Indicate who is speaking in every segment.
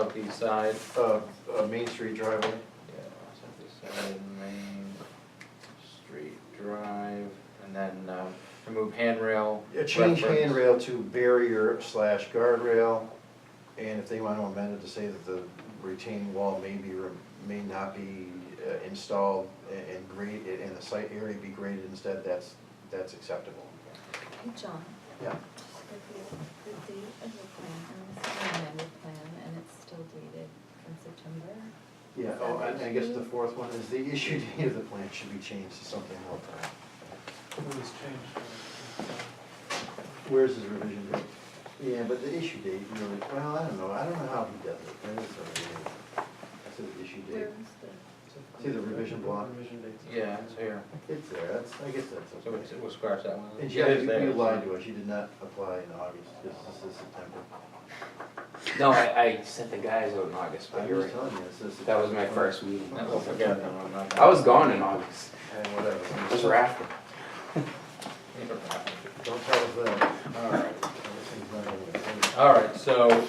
Speaker 1: Southeast side,
Speaker 2: uh, uh, Main Street driveway.
Speaker 1: yeah, southeast side, Main Street Drive, and then, uh, remove handrail.
Speaker 2: Yeah, Change
Speaker 1: reference.
Speaker 2: handrail to barrier slash guardrail, and if they want to amend it to say that the retaining wall may be, re- may not be uh, installed a- and grade, and the site area be graded instead, that's, that's acceptable.
Speaker 3: Hey, John,
Speaker 2: Yeah.
Speaker 3: the, the date of the plan, and this is an amended plan, and it's still dated from September.
Speaker 2: Yeah, oh, and I guess the fourth one is the issue date of the plan should be changed to something more. current.
Speaker 4: It was changed.
Speaker 2: Where's his revision date? Yeah, but the issue date, really, well, I don't know, I don't know how he does it, that is, uh, that's his issue date.
Speaker 3: Where was the,
Speaker 2: See the revision block?
Speaker 4: Revision dates.
Speaker 1: Yeah, it's here,
Speaker 2: It's there, that's, I guess that's
Speaker 1: so
Speaker 2: okay.
Speaker 1: we- we'll scratch that one.
Speaker 2: And
Speaker 1: Yeah,
Speaker 2: Jeff,
Speaker 1: it's
Speaker 2: you
Speaker 1: there.
Speaker 2: you lied to us, you did not apply in August, this this is September.
Speaker 5: No, I, I sent the guys out in August, but
Speaker 2: I'm
Speaker 5: you're
Speaker 2: just
Speaker 5: right.
Speaker 2: telling you, this is.
Speaker 5: That was my first meeting.
Speaker 1: No, we'll forget that one, not that
Speaker 5: I was gone in August.
Speaker 2: And whatever,
Speaker 5: It was rafting.
Speaker 1: one.
Speaker 2: don't tell us that,
Speaker 1: All right,
Speaker 2: everything's not gonna
Speaker 1: all right, so,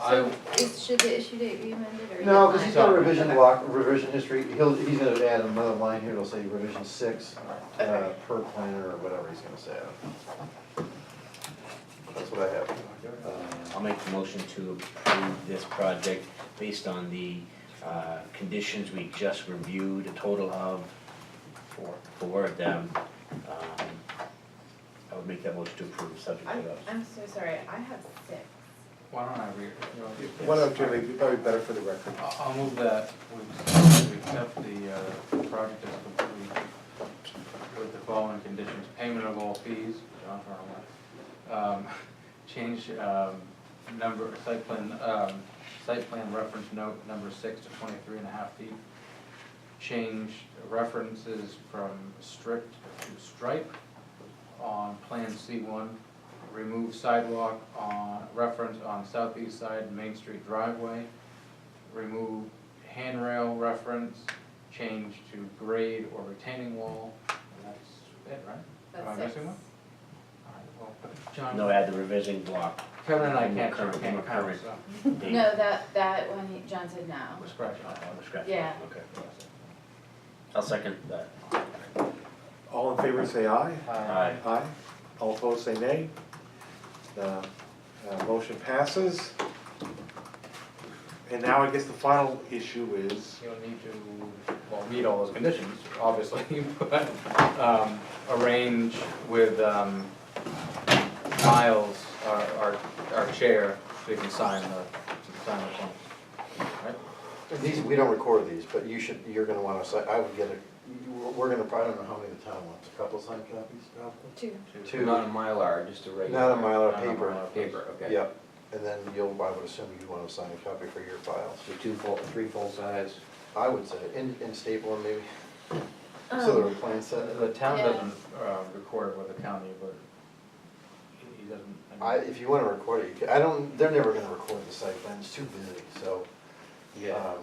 Speaker 1: I,
Speaker 3: so is, should the issue date be amended or?
Speaker 2: be. No, because he's got a
Speaker 1: Sorry.
Speaker 2: revision block, revision history, he'll, he's gonna add another line here, it'll say revision six, uh, per planner or whatever he's gonna say. That's what I have.
Speaker 6: Uh,
Speaker 7: Um,
Speaker 6: I'll make the motion to approve this project based on the uh, conditions we just reviewed, a total of
Speaker 1: four,
Speaker 6: four of them. Um, I would make that motion to approve subject to
Speaker 3: I'm,
Speaker 6: those.
Speaker 3: I'm so sorry, I have six.
Speaker 1: why don't I read it? You want to-
Speaker 7: One of them, it'd be probably better for the record.
Speaker 4: I'll, I'll move that, we we accept the, uh, project as complete with the following conditions, payment of all fees, John Harlan. Um, change, um, number, site plan, um, site plan reference note number six to twenty-three and a half feet. Change references from strict to stripe on Plan C one. Remove sidewalk on, reference on southeast side Main Street driveway. Remove handrail reference, change to grade or retaining wall, and that's it, right?
Speaker 3: That's
Speaker 4: Am I
Speaker 3: six.
Speaker 4: missing one? All right, well, John.
Speaker 6: No, add the revision block.
Speaker 4: Kevin and I
Speaker 6: I'm
Speaker 4: can't,
Speaker 6: current- I'm
Speaker 4: can't count,
Speaker 6: current.
Speaker 4: so
Speaker 6: date.
Speaker 3: No, that, that one, he- John said no.
Speaker 4: we're scratching
Speaker 6: Uh,
Speaker 4: off on
Speaker 6: the scratch.
Speaker 3: Yeah.
Speaker 6: Okay.
Speaker 4: this.
Speaker 6: I'll second that.
Speaker 7: All in favor, say aye.
Speaker 6: Aye.
Speaker 7: Aye. All opposed, say nay. The uh, motion passes. And now I guess the final issue is,
Speaker 4: You'll need to, well, meet all those conditions, obviously, but, um, arrange with, um, Miles, our, our, our chair, so he can sign the, to sign the form. Right?
Speaker 2: These, we don't record these, but you should, you're gonna wanna, si- I would get a, we're gonna probably, I don't know how many the town wants, a couple signed copies, probably?
Speaker 3: Two.
Speaker 2: Two.
Speaker 5: Not a Mylar, just a regular.
Speaker 2: Not a Mylar,
Speaker 5: Not a
Speaker 2: paper.
Speaker 5: Mylar, Paper, okay.
Speaker 2: Yep, and then you'll, I would assume you'd wanna sign a copy for your files,
Speaker 5: So two full, three full size.
Speaker 2: I would say, and, and staple them maybe, so there are
Speaker 3: Um,
Speaker 2: plans set.
Speaker 4: The, the town
Speaker 3: Yeah.
Speaker 4: doesn't, uh, record with the county, but he, he doesn't.
Speaker 2: I,
Speaker 4: mean,
Speaker 2: if you wanna record it, you can, I don't, they're never gonna record the site plan, it's too busy, so. um,
Speaker 5: Uh,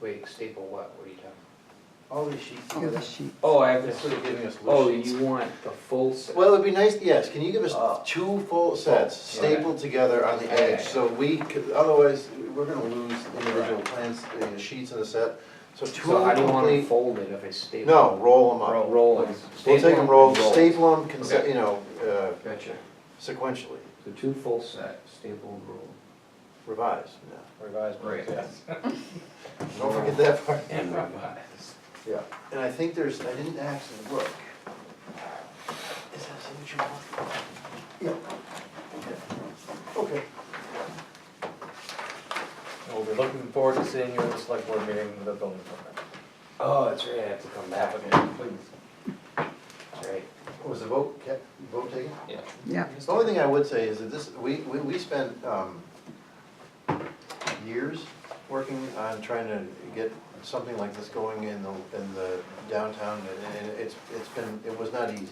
Speaker 5: Wait, staple what? What are you talking?
Speaker 2: All these sheets.
Speaker 5: Oh, I have
Speaker 2: This is
Speaker 5: this.
Speaker 2: giving us
Speaker 5: Oh,
Speaker 2: loose sheets.
Speaker 5: you want the full set?
Speaker 2: Well, it'd be nice, yes, can you give
Speaker 5: Oh.
Speaker 2: us two full sets stapled together on the
Speaker 5: Yeah, yeah,
Speaker 2: edge, so we, could- otherwise, we're gonna lose individual plans, you know, sheets in the set. So two
Speaker 5: So I don't want them
Speaker 2: complete,
Speaker 5: folded if I staple.
Speaker 2: no, roll them
Speaker 5: Roll,
Speaker 2: up.
Speaker 5: roll. it.
Speaker 2: We'll take them rolled, staple them,
Speaker 5: Okay.
Speaker 2: you know, uh,
Speaker 5: Gotcha.
Speaker 2: sequentially,
Speaker 5: So two full set, staple roll.
Speaker 2: revised, yeah.
Speaker 4: Revised.
Speaker 5: Right.
Speaker 4: plans.
Speaker 2: Don't forget that part.
Speaker 5: And revise.
Speaker 2: Yeah, and I think there's, I didn't actually look. Is that what you want? Yeah. Okay.
Speaker 4: We'll be looking forward to seeing you at the select board meeting with the building department.
Speaker 5: Oh, that's right, I have to come back. That's right.
Speaker 2: Was the vote, kept, vote taken?
Speaker 1: Yeah.
Speaker 8: Yeah.
Speaker 2: The only thing I would say is that this, we, we, we spent, um, years working on trying to get something like this going in the, in the downtown, and, and it's, it's been, it was not easy.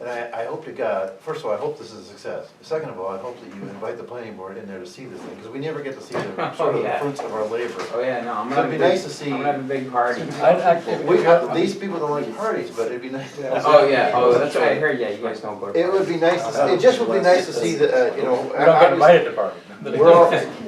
Speaker 2: And I, I hope to God, first of all, I hope this is a success. Second of all, I hope that you invite the planning board in there to see this thing, because we never get to see the, sort of the
Speaker 5: Oh, Yeah.
Speaker 2: fruits of our labor.
Speaker 5: Oh, yeah, no, I'm
Speaker 2: So it'd
Speaker 5: gonna.
Speaker 2: be
Speaker 5: have a
Speaker 2: nice
Speaker 5: big-
Speaker 2: to see-
Speaker 5: I'm gonna have a big party.
Speaker 4: I'd actually-
Speaker 2: We, uh, these people don't like parties, but it'd be nice.
Speaker 5: Oh, yeah, oh, that's right, I heard, yeah, you guys don't go to.
Speaker 2: It would be nice to, see- it just would be nice to see the, uh, you know.
Speaker 4: We don't get
Speaker 2: obviously-
Speaker 4: invited to party.
Speaker 2: We're all,